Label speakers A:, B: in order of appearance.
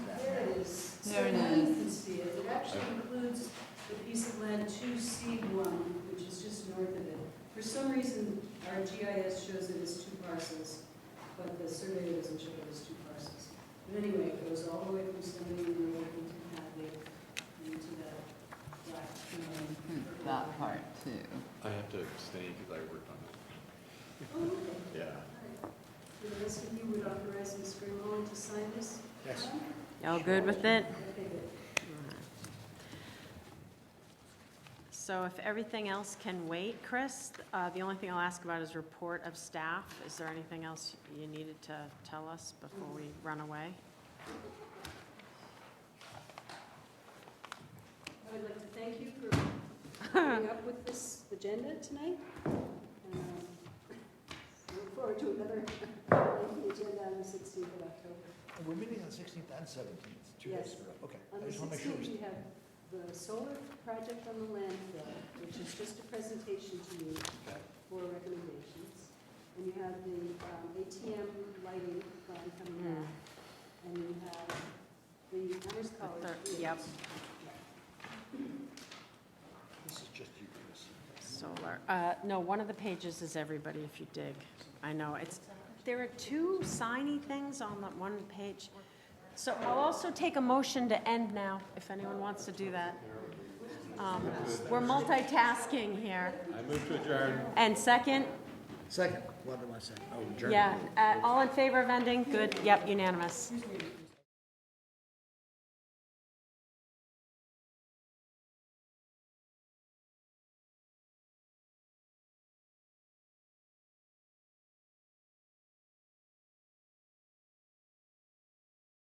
A: our GIS shows it as two parcels, but the surveyor doesn't show it as two parcels. But anyway, it goes all the way from Stony Road into Hadley, into that black. um,
B: Hmm,
A: purple-
C: Hmm, That part too.
D: I have to abstain because I worked on
A: Oh, okay.
D: it. Yeah.
A: All right. The rest of you would authorize Ms. Greenwald to sign this?
D: Yes.
B: Y'all good with it?
A: Okay, good.
B: So if everything else can wait, Chris, uh, the only thing I'll ask about is report of staff. Is there anything else you needed to tell us before we run away?
A: I would like to thank you for coming up with this agenda tonight. And, um, I Look forward to another lengthy agenda on the 16th of October.
E: And We're meeting on sixteenth and seventeenth, two
A: Yes.
E: days in a row. Okay,
A: On
E: I
A: the
E: just want to make sure.
A: 16th,
E: we-
A: we have the solar project on the landfill, which is just a presentation to you for recommendations. And you have the um, ATM lighting plan coming
B: Hmm.
A: up. And you have the Hunter's College.
B: third-
A: fields.
B: yep.
E: This is just you, Chris.
B: Solar, uh, no, one of the pages is everybody if you dig. I know, it's, there are two signy things on that one page. So I'll also take a motion to end now, if anyone wants to do that. Um, We're multitasking here.
D: I move to adjourn.
B: And second?
E: Second, what am I saying? Oh, German.
B: Yeah, uh, all in favor of ending? Good, yep, unanimous.